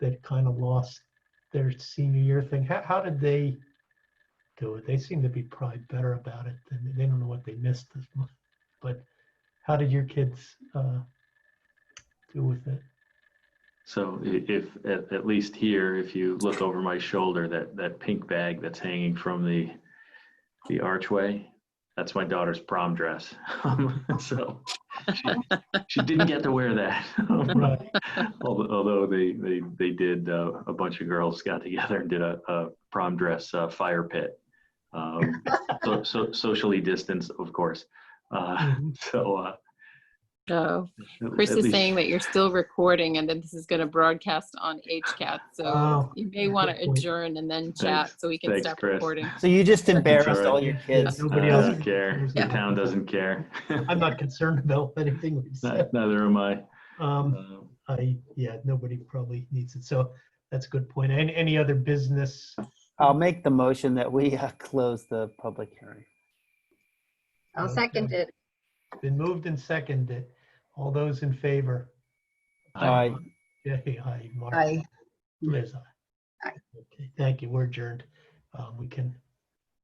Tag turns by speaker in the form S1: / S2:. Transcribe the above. S1: that kind of lost their senior year thing. How, how did they do it? They seem to be probably better about it than they don't know what they missed as much. But how did your kids uh, do with it?
S2: So i- if, at, at least here, if you look over my shoulder, that, that pink bag that's hanging from the, the archway, that's my daughter's prom dress. Um, So she- she didn't get to wear that.
S1: Right.
S2: Although although they, they, they did, uh, a bunch of girls got together and did a, a prom dress uh, fire pit. Um, So, so socially distanced, of course. Uh,
S1: Mhm.
S2: So. uh,
S3: Oh,
S2: at
S3: Chris is
S2: least-
S3: saying that you're still recording and that this is going to broadcast on HCAT. So
S1: Oh,
S3: you may want to
S1: good point.
S3: adjourn and then chat
S2: Thanks.
S3: so we can
S2: Thanks,
S3: stop
S2: Chris.
S3: recording.
S4: So you just embarrassed
S2: alright.
S4: all your kids.
S1: Nobody
S2: I
S1: else
S2: don't care. The
S1: Yeah.
S2: town doesn't care.
S1: I'm not concerned about anything we said.
S2: Not- Neither am I.
S1: Um,
S2: Um,
S1: I, yeah, nobody probably needs it. So that's a good point. Any, any other business?
S4: I'll make the motion that we uh, close the public hearing.
S5: I'll
S1: Okay.
S5: second it.
S1: Been moved and seconded. All those in favor?
S2: I-
S4: Aye.
S1: Yay, aye. Mark?
S5: Aye.
S1: Liz, aye.
S5: Aye.
S1: Okay, thank you. We're adjourned. Um, we can